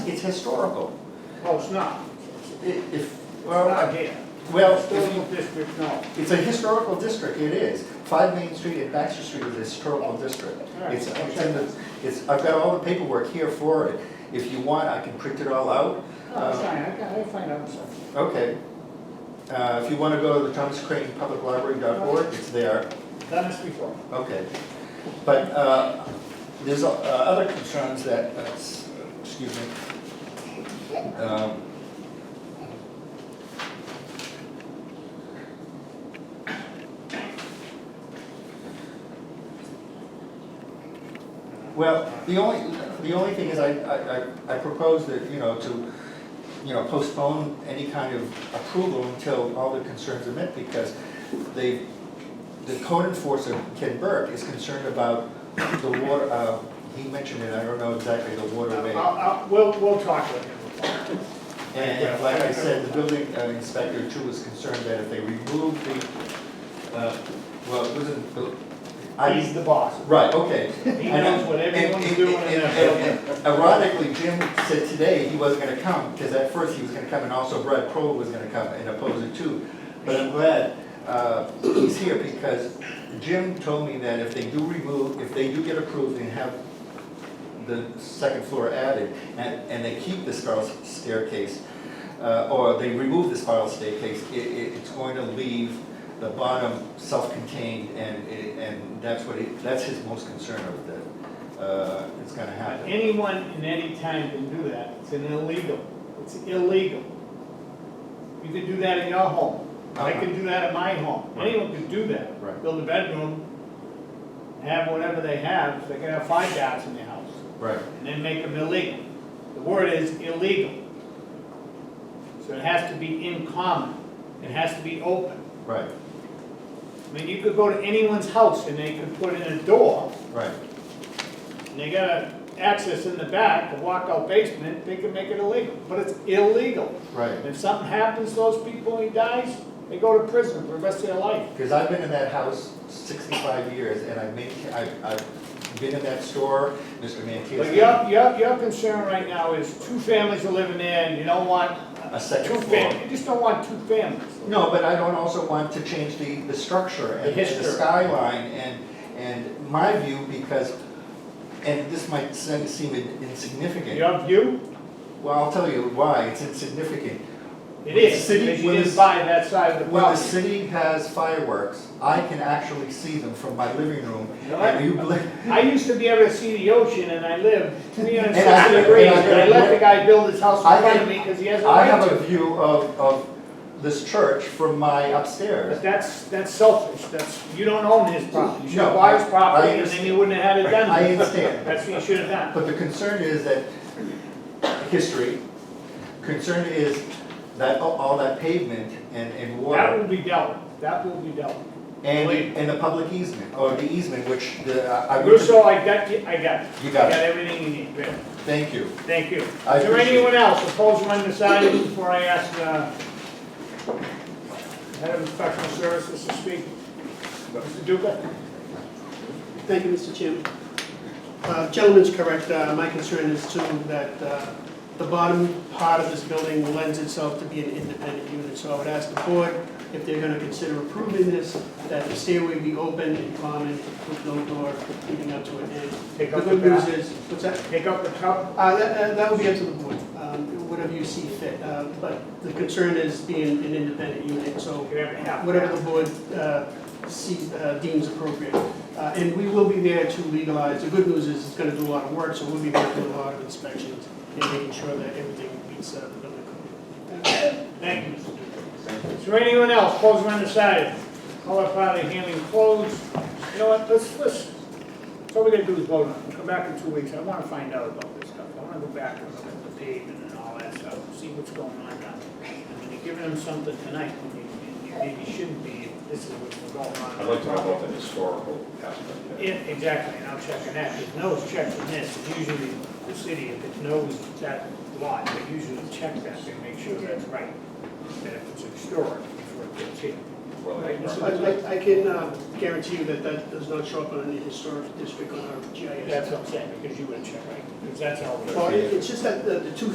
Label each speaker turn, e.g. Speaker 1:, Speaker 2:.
Speaker 1: It's historical.
Speaker 2: Oh, it's not.
Speaker 1: I- If,
Speaker 2: Well, not yet.
Speaker 1: well, if
Speaker 2: Historical
Speaker 1: you-
Speaker 2: district, no.
Speaker 1: it's a historical district, it is. Five Main Street and Baxter Street is a historical district. It's, it's in the- it's, I've got all the paperwork here for it. If you want, I can print it all out. Uh,
Speaker 2: No, it's fine, Oh, I can, I'll find out something.
Speaker 1: Okay. Uh, If you want to go to the Thomas Crane Public Library.org, it's there.
Speaker 2: Done this before.
Speaker 1: Okay. But uh, there's uh, other concerns that, uh, s- excuse me. Um, Well, the only, the only thing is I, I- I, I propose that, you know, to, you know, postpone any kind of approval until all the concerns are met because they, the code enforcer, Ken Burke, is concerned about the water, uh, he mentioned it, I don't know exactly, the waterway.
Speaker 2: I'll, I'll, we'll, we'll talk with him.
Speaker 1: And like I said, the building uh, inspector too was concerned that if they remove the, uh, well, it wasn't, built- I,
Speaker 2: He's the boss.
Speaker 1: Right, okay.
Speaker 2: He
Speaker 1: And-
Speaker 2: knows what
Speaker 1: and-
Speaker 2: everyone's
Speaker 1: and-
Speaker 2: doing in
Speaker 1: and-
Speaker 2: that
Speaker 1: and- and Ironically, Jim said today he wasn't gonna come, because at first he was gonna come, and also Brad Kroll was gonna come and oppose it too. But I'm glad uh, he's here, because Jim told me that if they do remove, if they do get approved and have the second floor added, and, and they keep the spiral staircase, uh, or they remove the spiral staircase, it, it, it's going to leave the bottom self-contained, and, it- and that's what, he- that's his most concern of the, uh, it's gonna happen.
Speaker 2: Anyone in any time can do that. It's an illegal. It's illegal. You could do that in your home. I could do that at my home. Anyone could do that.
Speaker 1: Right.
Speaker 2: Build a bedroom, have whatever they have. They can have five guys in their house.
Speaker 1: Right,
Speaker 2: and then make them illegal. The word is illegal. So it has to be in common, it has to be open.
Speaker 1: right,
Speaker 2: I mean, you could go to anyone's house and they could put in a door,
Speaker 1: right,
Speaker 2: and they got a access in the back, a walkout basement, they could make it illegal, but it's illegal. And
Speaker 1: right.
Speaker 2: if something happens to those people, and he dies, they go to prison for the rest of their life.
Speaker 1: Because I've been in that house sixty-five years, and I've made, I've, I've been in that store, Mr.
Speaker 2: But
Speaker 1: Mantis,
Speaker 2: your, your, your concern right now is two families are living there, and you don't want
Speaker 1: a
Speaker 2: two
Speaker 1: second floor.
Speaker 2: families, you just don't want two families.
Speaker 1: No, but I don't also want to change the, the structure and
Speaker 2: The
Speaker 1: and the
Speaker 2: history.
Speaker 1: skyline and, and my view because, and this might se- seem in- insignificant.
Speaker 2: Your view?
Speaker 1: Well, I'll tell you why, it's insignificant.
Speaker 2: It is,
Speaker 1: City
Speaker 2: because you
Speaker 1: was-
Speaker 2: didn't buy that side of the
Speaker 1: When the
Speaker 2: property.
Speaker 1: city has fireworks, I can actually see them from my living room.
Speaker 2: You know
Speaker 1: And you
Speaker 2: what?
Speaker 1: believe,
Speaker 2: I used to be able to see the ocean and I lived three hundred
Speaker 1: And I-
Speaker 2: sixty degrees, but I let the guy build his house
Speaker 1: I
Speaker 2: in front
Speaker 1: have-
Speaker 2: of me because he has a
Speaker 1: I have
Speaker 2: right
Speaker 1: a
Speaker 2: to.
Speaker 1: view of, of this church from my
Speaker 2: But
Speaker 1: upstairs.
Speaker 2: that's, that's selfish, that's, you don't own his property, you should
Speaker 1: No,
Speaker 2: buy his
Speaker 1: I- I
Speaker 2: property and then you wouldn't have had it
Speaker 1: I
Speaker 2: done.
Speaker 1: understand.
Speaker 2: That's what you should have done.
Speaker 1: But the concern is that history, concern is that all- all that pavement and, and
Speaker 2: That
Speaker 1: water
Speaker 2: will be dealt, with. that will be dealt. with.
Speaker 1: and, and the public easement, or the easement, which the, uh, I I would.
Speaker 2: Russo, I got you, I got it.
Speaker 1: You
Speaker 2: I
Speaker 1: got
Speaker 2: got
Speaker 1: it,
Speaker 2: everything you need, Great.
Speaker 1: thank you.
Speaker 2: thank you. Is
Speaker 1: I
Speaker 2: there
Speaker 1: appreciate it.
Speaker 2: anyone else opposed or undecided before I ask, uh, head of inspection services to speak? Mr. Duca?
Speaker 3: Thank you, Mr. Chairman. Uh, Gentleman's correct. Uh, My concern is too that uh, the bottom part of this building lends itself to be an independent unit. So I would ask the board, if they're going to consider approving this, that the stairway be open and common with no door leading up to it. And
Speaker 2: Take
Speaker 3: The
Speaker 2: up the
Speaker 3: good news
Speaker 2: back.
Speaker 3: is, what's that?
Speaker 2: Pick up the cup.
Speaker 3: Uh, That that- that would be up to the board, um, whatever you see fit. Uh, But the concern is being an independent unit, so
Speaker 2: You have to have
Speaker 3: whatever the board uh, sees, uh, deems appropriate. Uh, And we will be there to legalize, the good news is it's gonna do a lot of work, so we'll be working with a lot of inspections and making sure that everything meets uh, the building code.
Speaker 2: Thank you, Mr. Duca. Is there anyone else, opposed or undecided? Color party handling closed. You know what, let's, let's, that's all we gotta do is vote on it. Come back in two weeks. I wanna find out about this stuff. I wanna go back and look at the pavement and all that stuff, see what's going on down there. I mean, you're giving them something tonight, when you, you maybe shouldn't be, if this is what's going on.
Speaker 4: I'd like to know about the historical aspect of it.
Speaker 2: Yeah, exactly, and I'm checking that, if no one's checking this, usually the city, if it knows that lot, they usually check that to make sure that's right. That if it's historic before it gets here.
Speaker 4: Well,
Speaker 3: So I- I I can uh, guarantee you that that does not show up on any historic district on our GIS.
Speaker 2: That's what I'm saying, because you wouldn't check, right? Because that's all.
Speaker 3: Well, it- it's just that the the two